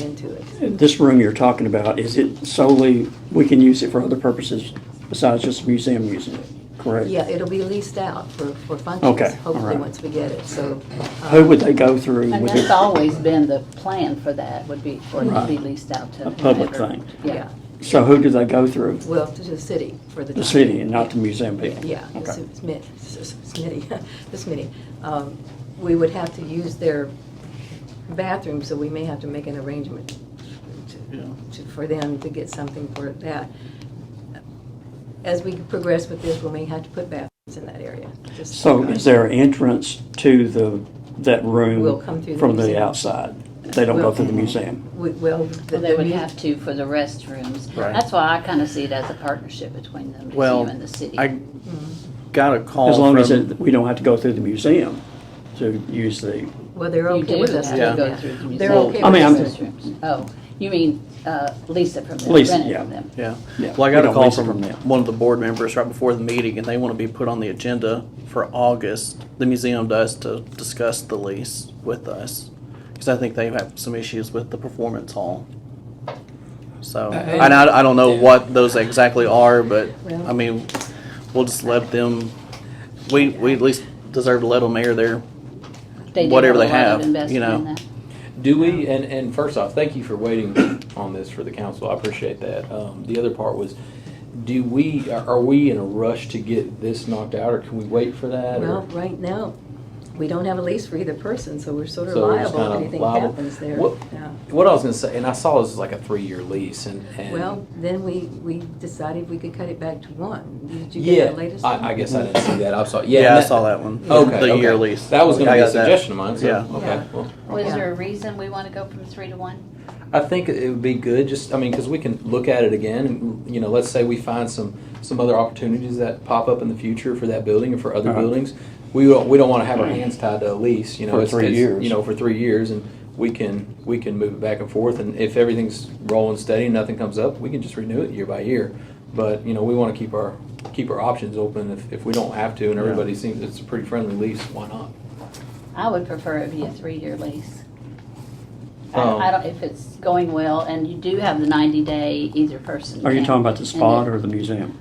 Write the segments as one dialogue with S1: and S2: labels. S1: into it.
S2: This room you're talking about, is it solely, we can use it for other purposes besides just the museum using it, correct?
S1: Yeah, it'll be leased out for, for functions,
S2: Okay, all
S1: hopefully,
S2: right.
S1: once we get it, so. uh,
S2: Who would they go through?
S3: And
S2: Would
S3: that's
S2: it-
S3: always been the plan for that, would be, for it to be
S2: Right.
S3: leased out to.
S2: A public
S3: whomever.
S2: thing.
S3: Yeah.
S2: So who do they go through?
S1: Well, to the city for the.
S2: The
S1: time
S2: city
S1: being.
S2: and not the museum people?
S1: Yeah, the
S2: Okay.
S1: SMIT, SMIT, the SMIT. Um, We would have to use their bathroom, so we may have to make an arrangement to- to- for them to get something for that. As we progress with this, we may have to put bathrooms in that area. just-
S2: So is there an entrance to the, that room?
S1: Will come through the
S2: From the
S1: museum.
S2: outside? They don't go
S1: Will.
S2: through the museum?
S1: We- Well. the-
S3: Well, they would
S1: the-
S3: have to for the restrooms.
S4: Right.
S3: That's why I kind of see it as a partnership between the
S4: Well,
S3: museum and the city.
S4: I got a call
S2: As long as
S4: from-
S2: it- we don't have to go through the museum to use the,
S1: Well, they're
S3: You
S1: okay
S3: do
S1: with us
S3: have
S1: doing
S3: to
S4: Yeah.
S3: go through the
S1: that. They're
S3: museum.
S1: okay
S2: I mean,
S1: with
S2: I'm-
S1: us.
S3: restrooms. Oh, you mean uh, lease it from them,
S2: Lease it,
S3: rent it
S2: yeah.
S3: from them.
S4: Yeah,
S2: Yeah,
S4: well, I
S2: we
S4: got a
S2: don't
S4: call
S2: lease it from
S4: from
S2: them.
S4: one of the board members right before the meeting, and they want to be put on the agenda for August. The museum does to discuss the lease with us, because I think they have some issues with the performance hall. So, and I, I don't know what those exactly are, but, I mean, we'll just let them, we, we at least deserve to let them air their,
S3: They do
S4: Whatever
S3: a
S4: they
S3: lot of
S4: have, you
S3: investment
S4: know.
S3: in that.
S5: Do we, and, and first off, thank you for waiting on this for the council, I appreciate that. Um, the other part was, do we, are are we in a rush to get this knocked out, or can we wait for that? or-
S1: Well, right now, we don't have a lease for either person, so we're sort of
S5: So we're just
S1: liable if
S5: kinda
S1: anything
S5: liable.
S1: happens there.
S5: What-
S1: Yeah.
S5: What I was gonna say, and I saw this was like a three-year lease, and, and.
S1: Well, then we, we decided we could cut it back to one. Did you
S5: Yeah,
S1: get the latest? one?
S5: I, I guess I didn't see that, I saw, yeah.
S4: yeah, I
S5: and
S4: saw that one.
S5: Okay,
S4: The year
S5: okay.
S4: lease.
S5: That was gonna
S4: I
S5: be a
S4: got that.
S5: suggestion of mine, so,
S4: Yeah.
S1: Yeah.
S5: okay, well.
S3: Was
S1: Yeah.
S3: there a reason we want to go from three to one?
S5: I think it would be good, just, I mean, because we can look at it again, and, you know, let's say we find some, some other opportunities that pop up in the future for that building or for other
S2: Uh-huh. Mm-hmm.
S5: buildings. We don't, we don't want to have our hands tied to a lease, you know.
S2: For
S5: it's-
S2: three
S5: it's,
S2: years.
S5: You know, for three years, and we can, we can move it back and forth, and if everything's rolling steady, and nothing comes up, we can just renew it year by year. But, you know, we want to keep our, keep our options open if, if we don't have to, and
S4: Yeah.
S5: everybody seems it's a pretty friendly lease, why not?
S3: I would prefer it be a three-year lease. I
S5: Um,
S3: don't, I don't, if it's going well, and you do have the ninety-day either person.
S2: are you
S3: can-
S2: talking about the
S3: and
S2: spot
S3: then-
S2: or the museum?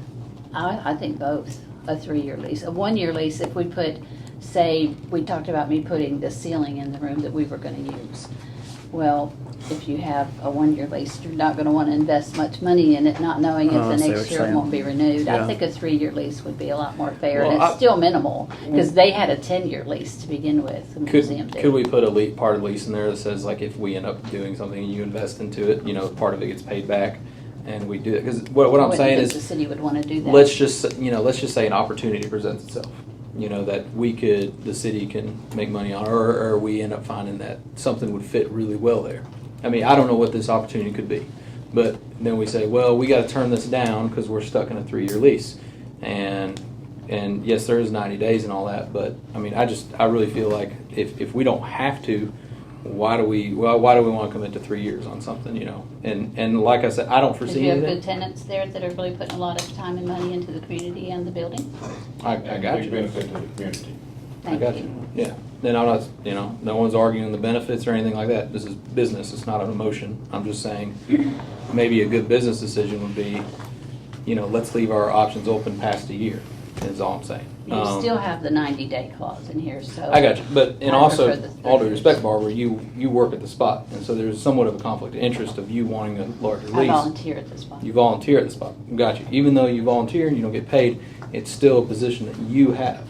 S3: I, I think both, a three-year lease. A one-year lease, if we put, say, we talked about me putting the ceiling in the room that we were gonna use. Well, if you have a one-year lease, you're not gonna wanna invest much money in it, not knowing if
S4: Oh, I
S3: the
S4: see what
S3: next year
S4: you're
S3: it
S4: saying.
S3: won't be renewed. I
S4: Yeah.
S3: think a three-year lease would be a lot more fair, and
S5: Well,
S3: it's
S5: I- Mm.
S3: still minimal, because they had a ten-year lease to begin with, the museum
S5: Could,
S3: did.
S5: could we put a le part of lease in there that says like if we end up doing something and you invest into it, you know, part of it gets paid back and we do it? Because what, what
S3: I
S5: I'm
S3: wouldn't
S5: saying
S3: think The
S5: is,
S3: city would wanna do that.
S5: let's just, you know, let's just say an opportunity presents itself. You know, that we could, the city can make money on, or, or we end up finding that something would fit really well there. I mean, I don't know what this opportunity could be, but then we say, well, we gotta turn this down because we're stuck in a three-year lease. And, and yes, there is ninety days and all that, but, I mean, I just, I really feel like if, if we don't have to, why do we, why, why do we wanna commit to three years on something, you know? And, and like I said, I don't
S3: Because
S5: foresee
S3: you have
S5: anything.
S3: good tenants there that are really putting a lot of time and money into the community and the building.
S5: I, I got
S6: Big
S5: you.
S6: benefit to the community.
S5: I
S3: Thank
S5: got you, yeah. Then I'm not, you know, no one's arguing the benefits or anything like that. This is business, it's not an emotion. I'm just saying, maybe a good business decision would be, you know, let's leave our options open past a year, is all I'm saying.
S3: You
S5: Um,
S3: still have the ninety-day clause in here, so.
S5: I got you, but, and
S3: I
S5: also,
S3: prefer the
S5: all due
S3: thirty.
S5: respect, Barbara, you, you work at the spot, and so there's somewhat of a conflict of interest of you wanting a larger
S3: I
S5: lease.
S3: volunteer at this one.
S5: You volunteer at the spot. Got you. Even though you volunteer and you don't get paid, it's still a position that you have.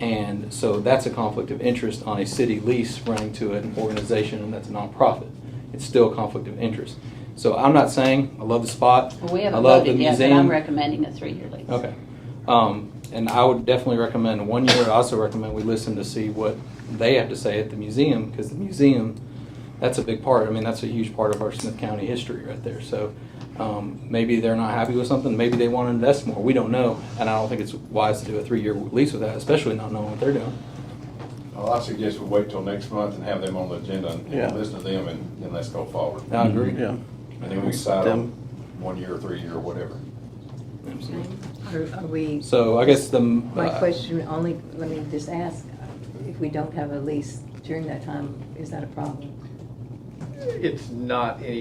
S5: And so that's a conflict of interest on a city lease running to an organization that's a nonprofit. It's still a conflict of interest. So I'm not saying I love the spot.
S3: Well, We
S5: I
S3: haven't
S5: love the
S3: voted yet, but I'm
S5: museum.
S3: recommending a three-year lease.
S5: Okay. Um, and I would definitely recommend one year. I also recommend we listen to see what they have to say at the museum, because the museum, that's a big part. I mean, that's a huge part of our Smith County history right there. So, um, maybe they're not happy with something, maybe they want to invest more. We don't know. And I don't think it's wise to do a three-year lease with that, especially not knowing what they're doing.
S6: Well, I suggest we wait till next month and have them on the agenda and
S4: Yeah.
S6: we'll listen to them and then let's go forward.
S5: I agree.
S4: Yeah.
S6: And then we decide on
S4: Them.
S6: one year, three year, whatever.
S5: Absolutely.
S1: Are are we,
S5: So I guess the.
S1: my
S5: uh,
S1: question only, let me just ask, if we don't have a lease during that time, is that a problem?
S6: it's not any